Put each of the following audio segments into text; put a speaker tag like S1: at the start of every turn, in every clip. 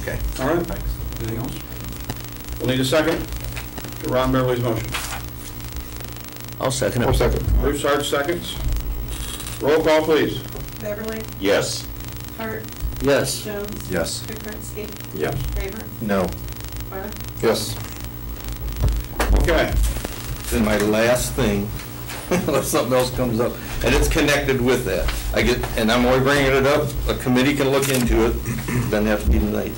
S1: Okay.
S2: All right,
S3: Thanks. Anything else?
S2: we'll need a second to Ron Beverly's motion.
S1: I'll second it.
S2: Bruce Hart seconds. Roll call, please.
S4: Beverly,
S5: Yes.
S4: Hart,
S1: Yes.
S4: Jones.
S5: Yes.
S4: Kukrinski,
S2: Yes.
S4: Raver,
S5: No.
S4: Mark.
S5: Yes.
S2: Okay.
S5: Then my last thing, unless something else comes up, and it's connected with that. I get, and I'm only bringing it up, a committee can look into it, doesn't have to be tonight.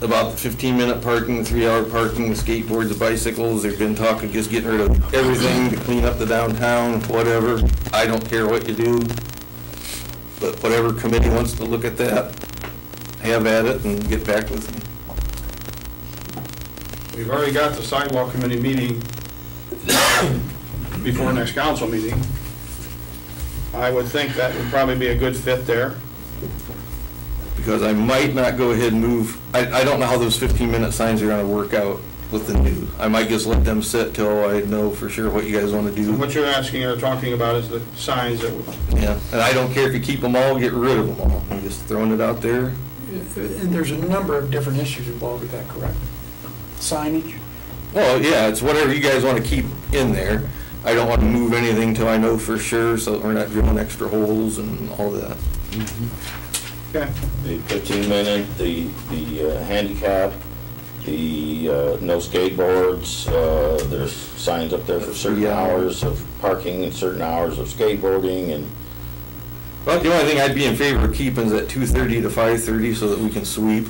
S5: About the fifteen-minute parking, the three-hour parking, the skateboards, the bicycles, they've been talking, just getting rid of everything to clean up the downtown, whatever. I don't care what you do, but whatever committee wants to look at that, have at it and get back with me.
S2: We've already got the sidewalk committee meeting before next council meeting. I would think that would probably be a good fit there.
S5: because I might not go ahead and move, I, I don't know how those 15-minute signs are gonna work out with the new. I might just let them sit till I know for sure what you guys wanna do.
S2: What you're asking or talking about is the signs that, would-
S5: Yeah, and I don't care if you keep them all, get rid of them all. I'm just throwing it out there.
S6: And there's a number of different issues involved with that, correct? Signage?
S5: Well, yeah, it's whatever you guys wanna keep in there. I don't wanna move anything till I know for sure, so we're not drilling extra holes and all that.
S2: okay,
S7: The 15-minute, the, the uh, handicap, the uh, no skateboards, uh, there's signs up there for certain
S5: Yeah.
S7: hours of parking and certain hours of skateboarding, and
S5: But the only thing I'd be in favor of keeping is at 2:30 to 5:30 so that we can sweep.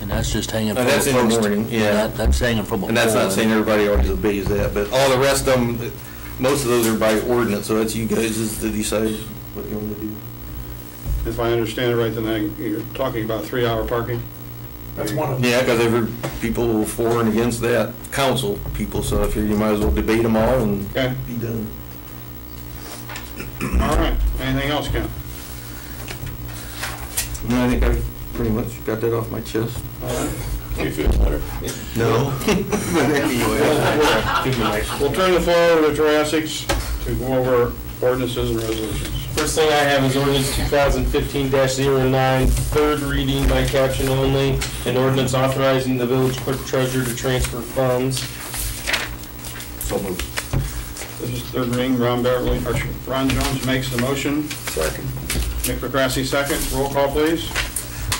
S1: And that's just hanging
S5: And
S1: from a
S5: that's in the
S1: post.
S5: morning, yeah.
S1: That- That's hanging from uh, a pole.
S5: And that's not saying everybody always obeys that, but all the rest of them, most of those are by ordinance, so that's you guys is to decide what you want to do.
S2: if I understand it right, then I- you're talking about three-hour parking.
S6: That's one of them.
S5: Yeah, because every, people for and against that, council people, so I figure you might as well debate them all and
S2: Okay.
S5: be done.
S2: All right, anything else, Ken?
S5: No, I think I pretty much got that off my chest.
S2: All right.
S7: you feel better.
S5: No. But anyway.
S2: We'll turn the floor over to Jurassic to go over ordinances and resolutions.
S8: First thing I have is ordinance 2015-09, third reading by caption only, an ordinance authorizing the village clerk treasurer to transfer funds.
S5: So moved.
S2: This is third reading, Ron Beverly, or Ron Jones makes the motion,
S5: Second.
S2: Nick McCrasky second, roll call please.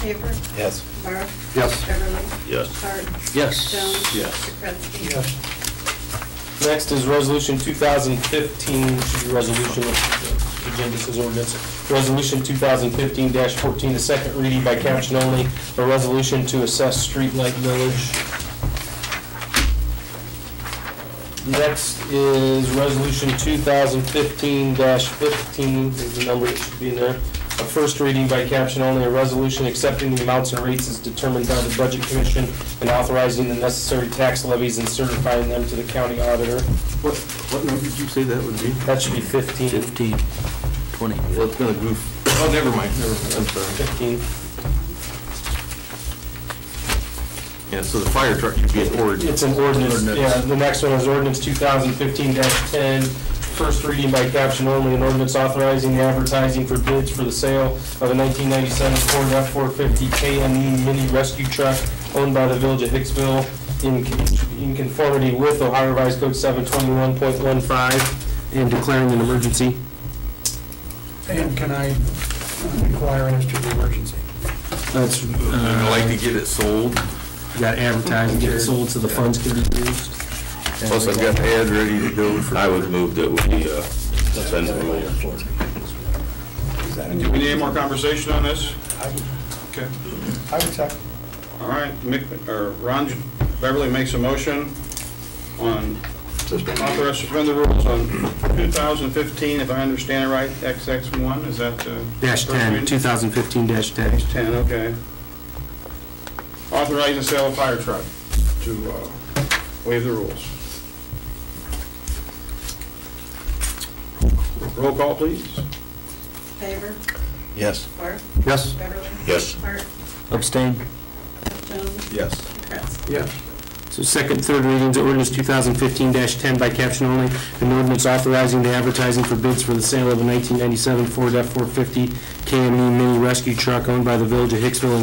S4: Raver,
S5: Yes.
S4: Mark.
S5: Yes.
S4: Beverly,
S7: Yes.
S4: Hart,
S1: Yes.
S4: Jones.
S5: Yes.
S4: Kukrinski.
S6: Yes.
S8: Next is resolution 2015, should be resolution, agenda says ordinance, resolution 2015-14, the second reading by caption only, a resolution to assess streetlight village. Next is resolution 2015-15, is the number that should be in there, a first reading by caption only, a resolution accepting the amounts and rates as determined by the Budget Commission and authorizing the necessary tax levies and certifying them to the county auditor.
S5: What, what number did you say that would be?
S8: That should be 15.
S1: 15, 20.
S5: Well, it's gonna goof. Oh, never mind, never mind, I'm sorry.
S8: 15.
S5: Yeah, so the fire truck should be an ordinance.
S8: It's an ordinance, yeah, the next one is ordinance 2015-10, first reading by caption only, an ordinance authorizing the advertising for bids for the sale of a 1997 Ford F-450 KME E mini rescue truck owned by the village of Hicksville in con- in conformity with Ohio Revised Code 721.15 and declaring an emergency.
S6: And can I inquire as to the emergency?
S8: That's,
S5: I'd like to get it sold,
S8: got advertising, get it sold so the funds can be used.
S5: plus I've got the ad ready to go for.
S7: I would move that we uh, send it over.
S2: Do we need any more conversation on this? Okay,
S6: I would second.
S2: all right, Mick, or Ron Beverly makes a motion on authorize suspend the rules on 2015, if I understand it right, XX1, is that uh, the?
S8: Dash 10, 2015-10.
S2: Dash 10, okay. Authorizing the sale of fire truck to uh, waive the rules. Roll call, please.
S4: Raver,
S5: Yes.
S4: Mark.
S5: Yes.
S4: Beverly.
S7: Yes.
S4: Hart,
S1: Abstain.
S4: Jones.
S5: Yes.
S4: Kukrinski.
S6: Yes.
S1: It's
S8: So second, third readings, ordinance 2015-10 by caption only, an ordinance authorizing the advertising for bids for the E sale of a 1997 Ford F-450 KME mini rescue truck owned by the Village of Hicksville and